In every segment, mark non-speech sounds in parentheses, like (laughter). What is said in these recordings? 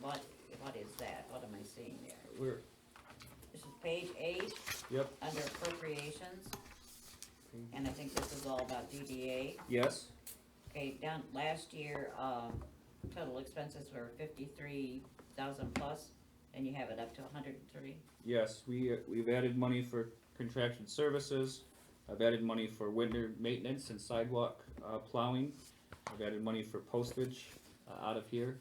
what, what is that? What am I seeing there? Where, This is page eight, yep, under appropriations. And I think this is all about DDA. yes, Okay, down, last year, um, total expenses were fifty-three thousand plus, and you have it up to hundred and thirty. yes, we, uh, we've added money for contraction services. I've added money for winter maintenance and sidewalk, uh, plowing. I've added money for postage, uh, out of here.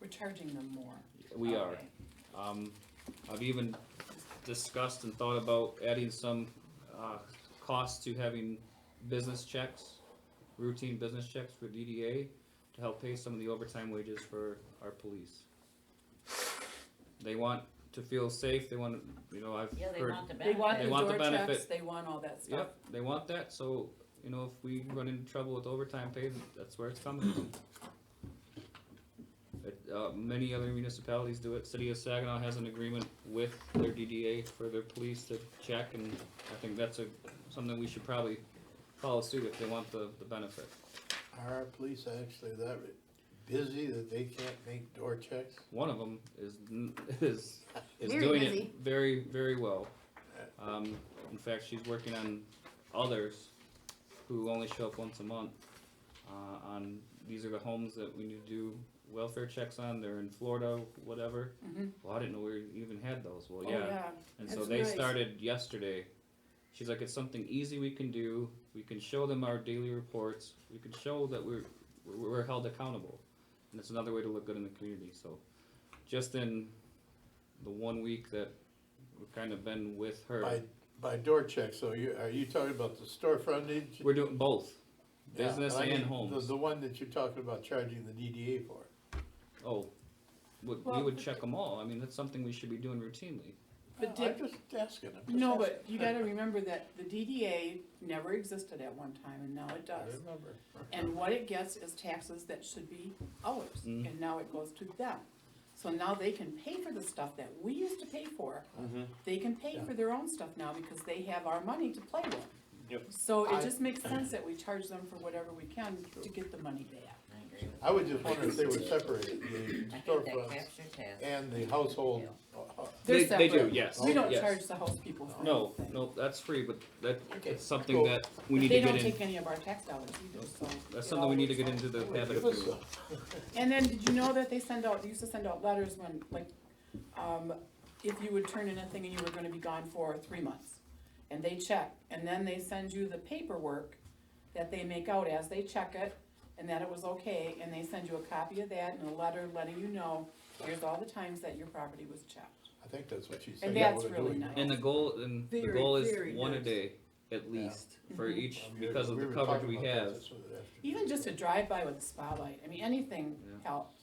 We're charging them more. We are. Um, I've even discussed and thought about adding some, uh, costs to having business checks, routine business checks for DDA to help pay some of the overtime wages for our police. They want to feel safe, they want, to you know, I've Yeah, they heard, want the They benefit. want the They want the door checks, benefit. they want all that stuff. yep, they want that, so, you know, if we run into trouble with overtime pay, that's where it's coming from. It, uh, many other municipalities do it, city of Saginaw has an agreement with their DDA for their police to check, and I think that's a, something we should probably follow suit if they want the, the benefit. Are our police actually that busy that they can't make door checks? One of them is (laughs) n- is is Very doing busy. it very very well. Um, in fact, she's working on others who only show up once a month. Uh, on these are the homes that we need to do welfare checks on. They're in Florida, whatever. Mhm. Well, I didn't know we even had those. Well, Oh, yeah. And so That's they nice. started yesterday. She's like, it's something easy we can do. We can show them our daily reports. We can show that we're we're, we're held accountable, and it's another way to look good in the community. So, just in the one week that we've kind of been with her, By, by door checks, so you, are you talking about the store frontage? we're doing both, Yeah, business I mean, and the- homes. The one that you're talking about charging the DDA for. oh, we, we Well, would check them all. I mean, that's something we should be doing routinely. But Oh, I'm did- just asking. I'm just No, asking. but (laughs) you gotta remember that the DDA never existed at one time and now it I does. remember. And what it gets is taxes that should be ours, Mm. and now it goes to them. So now they can pay for the stuff that we used to pay for. Mm-hmm. They can pay for their own stuff now because they have our money to play with. Yep. So I- it just makes sense that we charge them for whatever we can to get the money back. I agree with I was just wondering if they were separated, the that. I think that storefronts captures that. and the household. uh, They're They- they do, separate. yes, We don't yes. charge the house people for No, anything. no, that's free, but that Okay, it's something cool. that we need They to get don't in. take any of our tax dollars either, so. it That's something we all need to works get out. into the habit of Give us doing. a- (laughs) And then, did you know that they send out, they used to send out letters when, like, um, if you would turn in a thing and you were gonna be gone for three months? And they check, and then they send you the paperwork that they make out as they check it, and that it was okay, and they send you a copy of that and a letter letting you know, here's all the times that your property was checked. I think that's what she said. And yeah, that's we're really doing. nice. And the goal, and the Very, goal is very one a nice. day, at Yeah. least, for Mhm. each, I mean, because of the Um, were coverage talking we about that have. this other afternoon. Even just a drive-by with a spotlight, I mean, anything Yeah. helps,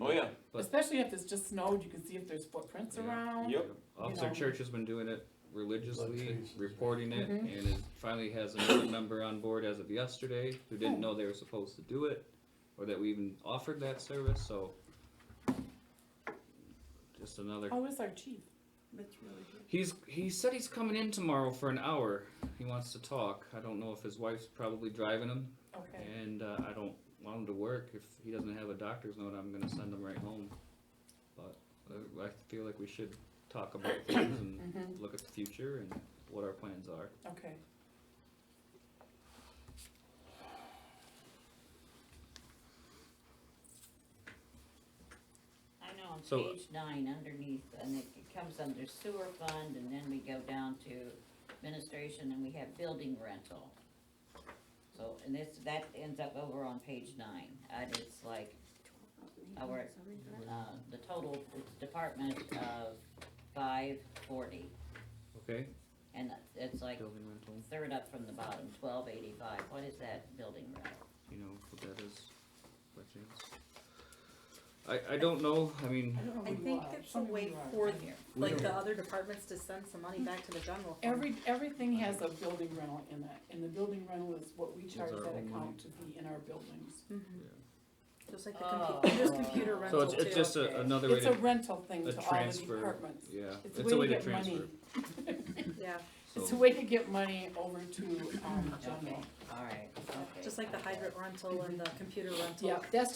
Oh, yeah, But- especially if it's just snowed, you can see if there's footprints Yeah. around. Yep. Officer know. Church has been doing it religiously, traces. reporting it, and Mhm. it finally has another member on board as of yesterday, who Oh. didn't know they were supposed to do it, or that we even offered that service, so. Just another, How is our chief? he's, he said he's coming in tomorrow for an hour, he wants to talk, I don't know if his wife's probably driving him, Okay, And uh, I don't want him to work. If he doesn't have a doctor's note, I'm gonna send him right home. But uh, I feel like we should talk about things and Mm-hmm. Mhm. look at the future and what our plans are. okay. I know, on So- page nine underneath, and it it comes under sewer fund, and then we go down to administration, and we have building rental. So, and this, that ends up over on page nine, and it's like, uh, where, uh, the total, it's department of five forty, Okay. and it's like Building rental. third up from the bottom, twelve eighty-five, what is that building rental? You know what that is, by chance? I I don't know. I mean, don't know I who you think are. it's Show a me who way Oh, you are. forward Right here. we like don't- the other departments to send some money back to the general fund. Every, everything has a building rental in it, and the building rental is what we charge our that own money. account to be in our buildings. Mm-hmm. Just like the Oh. computer, there's computer so rental it's too. it's just a, another way It's a to rental thing a to all the transfer. departments. yeah. It's a way to get money, transfer. Yeah, it's a So way to get money over to, um, general. Alright, okay. just like the hydrant rental and the computer rental. Yeah, that's